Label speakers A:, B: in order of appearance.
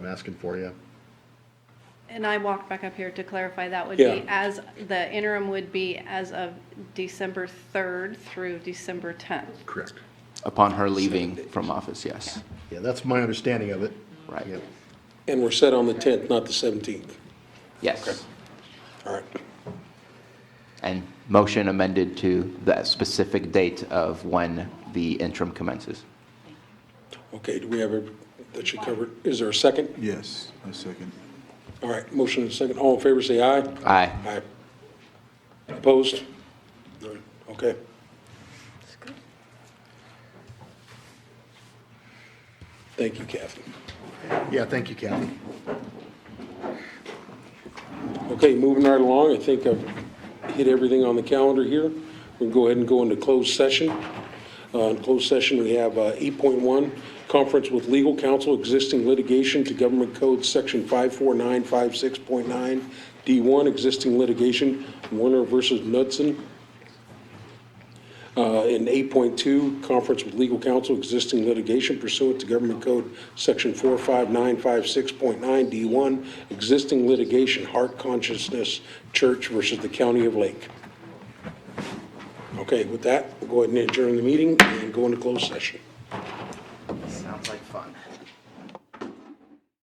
A: I'm asking for you.
B: And I walked back up here to clarify, that would be
C: Yeah.
B: as, the interim would be as of December 3rd through December 10th.
A: Correct.
D: Upon her leaving from office, yes.
A: Yeah, that's my understanding of it.
D: Right.
A: Yep.
C: And we're set on the 10th, not the 17th.
D: Yes.
C: All right.
D: And motion amended to that specific date of when the interim commences.
C: Okay, do we have a, that should cover, it? is there a second?
E: Yes, I second.
C: All right, motion and second. All in favor, say aye.
D: Aye.
C: Aye. Opposed? None. Okay. Thank you, Kathy.
A: Yeah, thank you, Kathy.
C: Okay, moving right along, I think I've hit everything on the calendar here. We'll go ahead and go into closed session. Uh, In closed session, we have uh, 8.1, conference with legal counsel, existing litigation to government code, section 54956.9, D1, existing litigation, Warner versus Knudsen. Uh, In 8.2, conference with legal counsel, existing litigation pursuant to government code, section 45956.9D1, existing litigation, heart consciousness, church versus the county of Lake. Okay, with that, we'll go ahead and adjourn the meeting and go into closed session.
D: Sounds like fun.